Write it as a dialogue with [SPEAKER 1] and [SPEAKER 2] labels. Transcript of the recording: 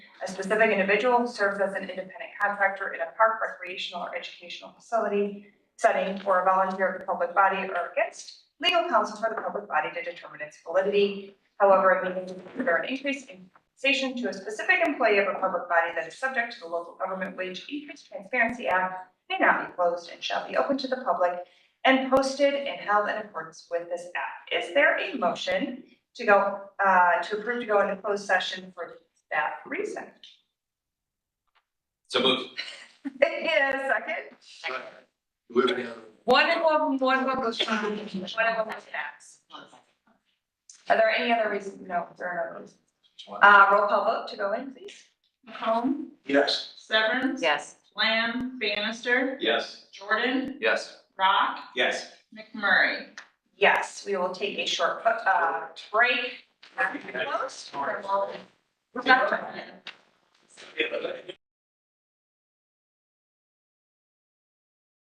[SPEAKER 1] specific individual serves as an independent contractor in a park, recreational, or educational facility, setting for a volunteer of the public body or against legal counsel for the public body to determine its validity. However, it may consider an increase in compensation to a specific employee of a public body that is subject to the local government wage increase transparency act may not be closed and shall be open to the public and posted and held in accordance with this act. Is there a motion to go, uh, to approve to go into closed session for that reason?
[SPEAKER 2] So moved.
[SPEAKER 1] It is second.
[SPEAKER 3] One in one, one will go strong, one in one will pass.
[SPEAKER 1] Are there any other reasons? No, there are no reasons. Uh, roll call vote to go in, please.
[SPEAKER 4] McComb,
[SPEAKER 5] Yes.
[SPEAKER 4] Severance.
[SPEAKER 3] Yes.
[SPEAKER 4] Lamb, Bannister,
[SPEAKER 2] Yes.
[SPEAKER 4] Jordan,
[SPEAKER 2] Yes.
[SPEAKER 4] Rock,
[SPEAKER 5] Yes.
[SPEAKER 4] McMurray.
[SPEAKER 1] Yes, we will take a short, uh, break. After close, for a moment.